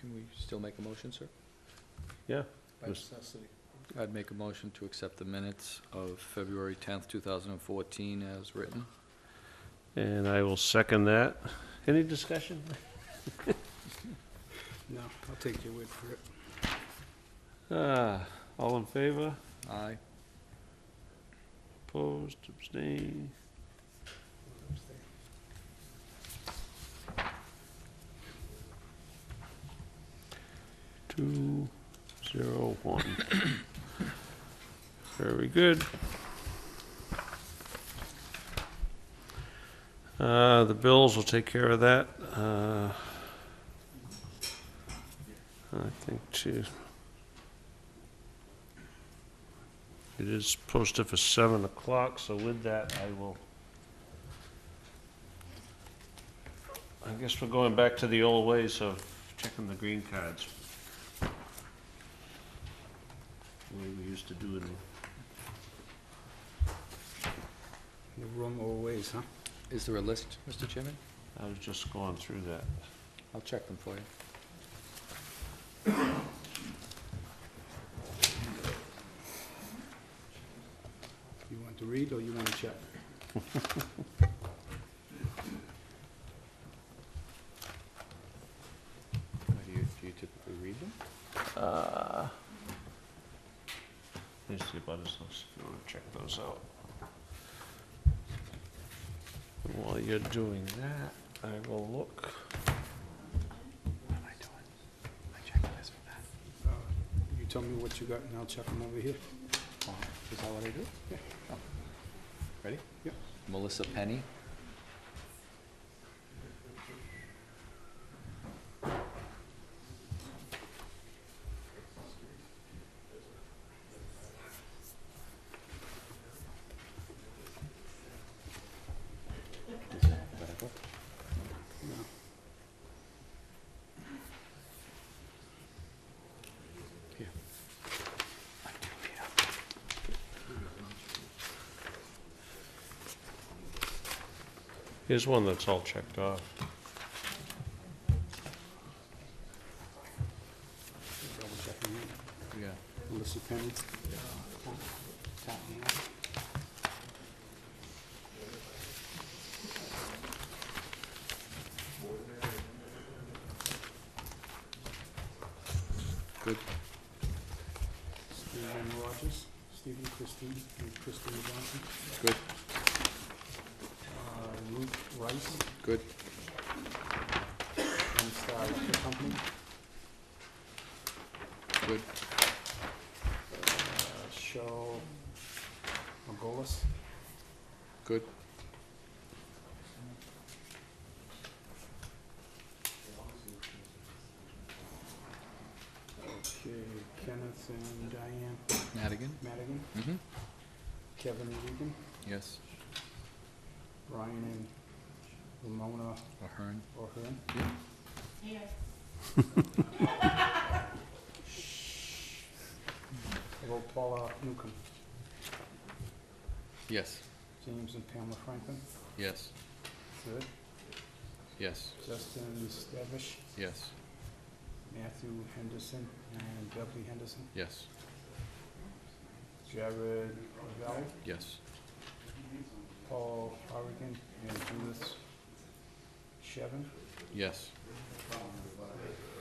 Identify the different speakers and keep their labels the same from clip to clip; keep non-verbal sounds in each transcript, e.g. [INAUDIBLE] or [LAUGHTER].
Speaker 1: Can we still make a motion, sir?
Speaker 2: by
Speaker 3: Yes.
Speaker 2: necessity.
Speaker 1: I'd make a motion to accept the minutes of February 10th, 2014 as written.
Speaker 3: And I will second that. Any discussion?
Speaker 2: No, I'll take your word for it.
Speaker 3: Ah, all in favor?
Speaker 1: Aye.
Speaker 3: Opposed, abstained? Two, zero, one. [COUGHS] Very good. Uh, the bills will take care of that. Uh, I think too. It is posted for seven o'clock, so with that, I will. I guess we're going back to the old ways of checking the green cards. The way we used to do it.
Speaker 2: The wrong always, huh?
Speaker 1: Is there a list, Mr. Chairman?
Speaker 3: I was just going through that.
Speaker 1: I'll check them for you.
Speaker 2: You want to read or you want to check?
Speaker 1: Do you do you typically read them?
Speaker 3: Uh, Here's the abutters list, if you wanna check those out. And While you're doing that, I will look.
Speaker 1: What am I doing? I checked this for that.
Speaker 2: Uh, You tell me what you got and I'll check them over here.
Speaker 1: Uh, Is that what I do?
Speaker 2: Yeah.
Speaker 1: Oh. Ready?
Speaker 2: Yeah.
Speaker 1: Melissa Penny.
Speaker 3: Here's one that's all checked off.
Speaker 2: Double checking it.
Speaker 1: Yeah.
Speaker 2: Melissa Penny. Tap me out.
Speaker 1: Good.
Speaker 2: Stephen Rogers, Stephen Christine, and Christine Johnson.
Speaker 1: Good.
Speaker 2: Uh, Ruth Rice,
Speaker 1: Good.
Speaker 2: and Star Liquor Company.
Speaker 1: Good.
Speaker 2: Uh, Cheryl Margolis,
Speaker 1: Good.
Speaker 2: okay, Kenneth and Diane
Speaker 1: Madigan.
Speaker 2: Madigan,
Speaker 1: Mm-hmm.
Speaker 2: Kevin Regan,
Speaker 1: Yes.
Speaker 2: Ryan and Ramona
Speaker 1: Ahern.
Speaker 2: O'Hearn. [LAUGHS] How About Paula Newcomb,
Speaker 1: Yes.
Speaker 2: James and Pamela Franklin,
Speaker 1: Yes.
Speaker 2: good.
Speaker 1: Yes.
Speaker 2: Justin Stavish,
Speaker 1: Yes.
Speaker 2: Matthew Henderson, and Beverly Henderson,
Speaker 1: Yes.
Speaker 2: Jared Valley,
Speaker 1: Yes.
Speaker 2: Paul Harrigan, and Judith Shevin,
Speaker 1: Yes.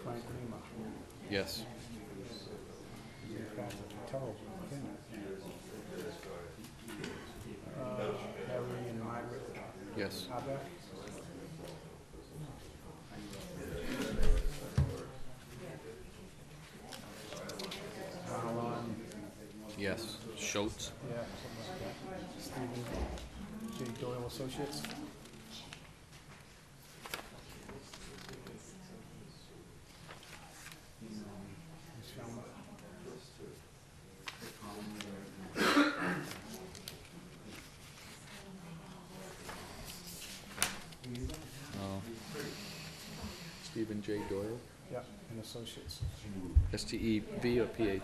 Speaker 2: Frank Lima.
Speaker 1: Yes.
Speaker 2: Terrible, isn't it? Uh, Harry and Margaret
Speaker 1: Yes.
Speaker 2: Abbott. Alan,
Speaker 1: Yes. Schultz.
Speaker 2: yeah, something like that. Stephen J. Doyle Associates. Miss Falmouth.
Speaker 1: No. Stephen J. Doyle.
Speaker 2: Yeah, and Associates.
Speaker 1: S T E V or P H?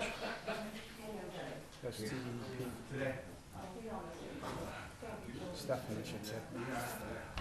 Speaker 2: That's T E P. Stephanie, I should say.